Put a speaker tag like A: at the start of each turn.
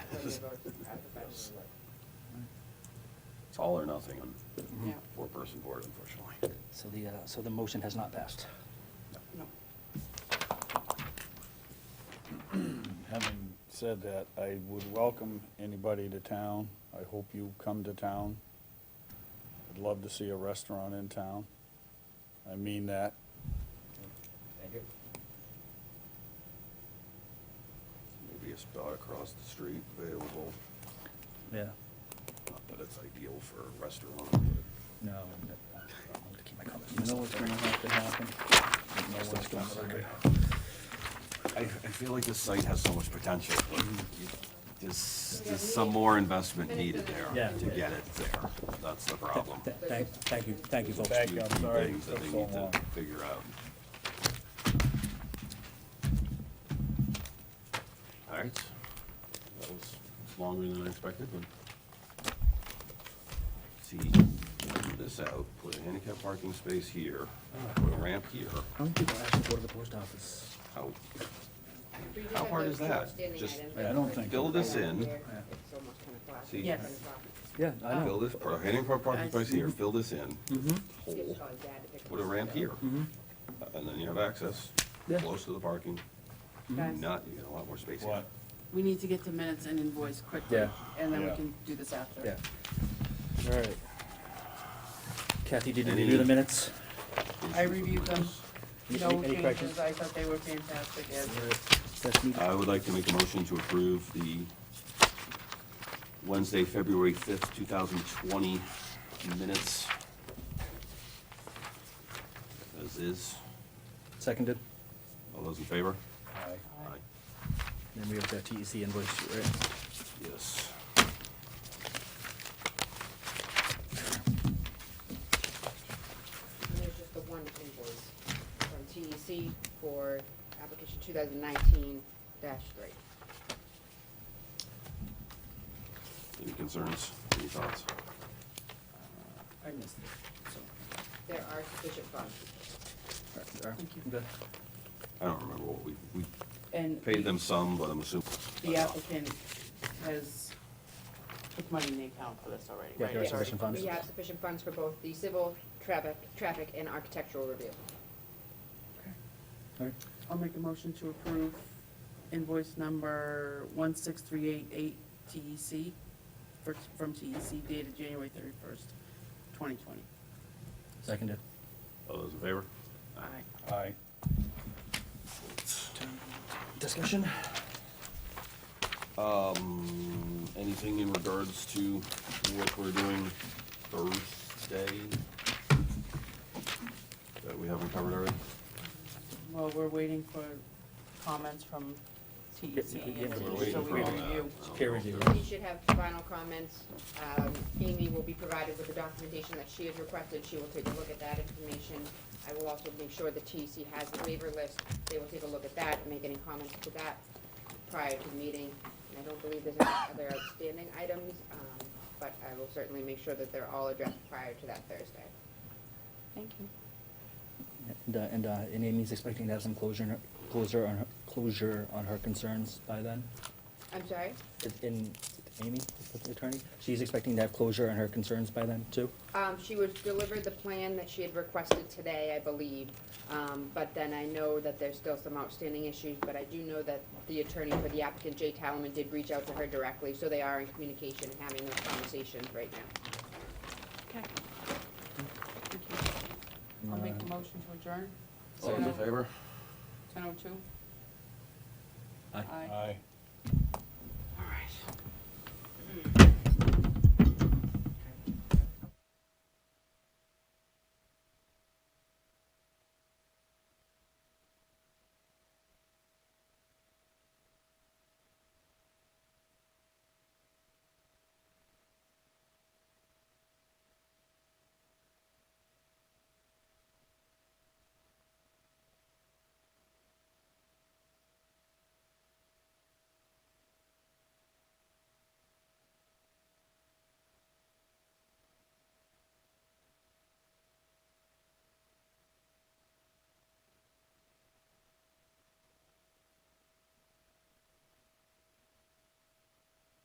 A: It's all or nothing on
B: Yeah.
A: four-person board, unfortunately.
C: So the, uh, so the motion has not passed.
B: No.
D: Having said that, I would welcome anybody to town. I hope you come to town. I'd love to see a restaurant in town. I mean that.
E: Thank you.
A: Maybe a spot across the street available,
C: Yeah.
A: not that it's ideal for a restaurant, but
C: No. I want to keep my comments.
D: You know what's gonna have to happen? You know what's gonna happen?
A: I, I feel like this site has so much potential. but you- There's, there's some more investment needed there
C: Mm-hmm. Yeah.
A: to get it there. That's the problem.
C: Th- Thank, thank you, thank you, folks.
D: Thank you,
A: Few
D: I'm sorry it
A: Things that
D: took
A: they
D: so
A: need to
D: long.
A: figure out. All right. That was longer than I expected, but. See, measure this out, put a handicap parking space here, put a ramp here.
C: How many people actually go to the post office?
A: How,
B: We did
A: How
B: have
A: hard
B: those
A: is
B: two
A: that?
B: outstanding
A: Just-
B: items,
D: I don't think-
A: Fill this
B: Right
A: in.
B: here.
C: Yeah.
B: It's almost kind of flat.
A: See.
C: Yes.
B: Kind of flat.
C: Yeah,
F: Oh.
C: I
A: fill
C: know.
A: this, put a handicap parking space here, fill this in,
C: Mm-hmm,
A: hole,
B: It's on data that
A: put a
B: goes
A: ramp
B: down.
A: here. And then you have access,
C: Yeah.
A: close to the parking,
F: Guys,
A: not, you get a lot more space here.
D: What?
F: we need to get to minutes and invoice quickly,
C: Yeah.
F: and then we
D: Yeah.
F: can do this after.
C: Yeah. All right. Kathy, did you
A: Any-
C: review the minutes?
F: I reviewed them.
C: Any-
F: No
C: any corrections?
F: changes, I thought they were fantastic, as
C: That's me.
A: I would like to make a motion to approve the Wednesday, February fifth, two thousand twenty minutes. As is,
C: Seconded.
A: all those in favor?
D: Aye.
A: Aye.
C: Then we have the TEC invoice, right?
A: Yes.
B: And there's just the one invoice from TEC for application two thousand nineteen three.
A: Any concerns, any thoughts?
F: I missed it, so,
B: There are sufficient funds.
F: thank you.
C: Good.
A: I don't remember what we, we
F: And
A: paid them some, but I'm assuming.
F: the applicant has put money in the account for this already,
C: Yeah,
F: right?
C: there are
F: It's already-
C: sufficient funds.
B: We have sufficient funds for both the civil, traffic, traffic and architectural review.
C: All right.
F: I'll make a motion to approve invoice number one six three eight eight TEC, for- from TEC dated January thirty-first, twenty twenty.
C: Seconded.
A: All those in favor?
F: Aye.
D: Aye.
C: Discussion?
A: Um, anything in regards to what we're doing Thursday? That we haven't covered already?
F: Well, we're waiting for comments from TEC,
C: Yeah, yeah,
F: and
C: we're
F: so
A: waiting
F: we
A: for all that.
F: review.
C: Peer review.
B: We should have final comments. Um, Amy will be provided with the documentation that she has requested. She will take a look at that information. I will also make sure the TEC has the waiver list. They will take a look at that and make any comments to that prior to the meeting. And I don't believe there's any other outstanding items, um, but I will certainly make sure that they're all addressed prior to that Thursday.
F: Thank you.
C: And, uh, and, uh, and Amy's expecting to have some closure, on her- closure on her, closure on her concerns by then?
B: I'm sorry?
C: Is- In, Amy, the attorney, she's expecting to have closure on her concerns by then too?
B: Um, she was delivered the plan that she had requested today, I believe, um, but then I know that there's still some outstanding issues, but I do know that the attorney for the applicant, Jay Talaman, did reach out to her directly, so they are in communication and having those conversations right now.
F: Okay. Thank you. I'll make a motion to adjourn.
A: All those in favor?
F: Ten oh two?
C: Aye.
D: Aye.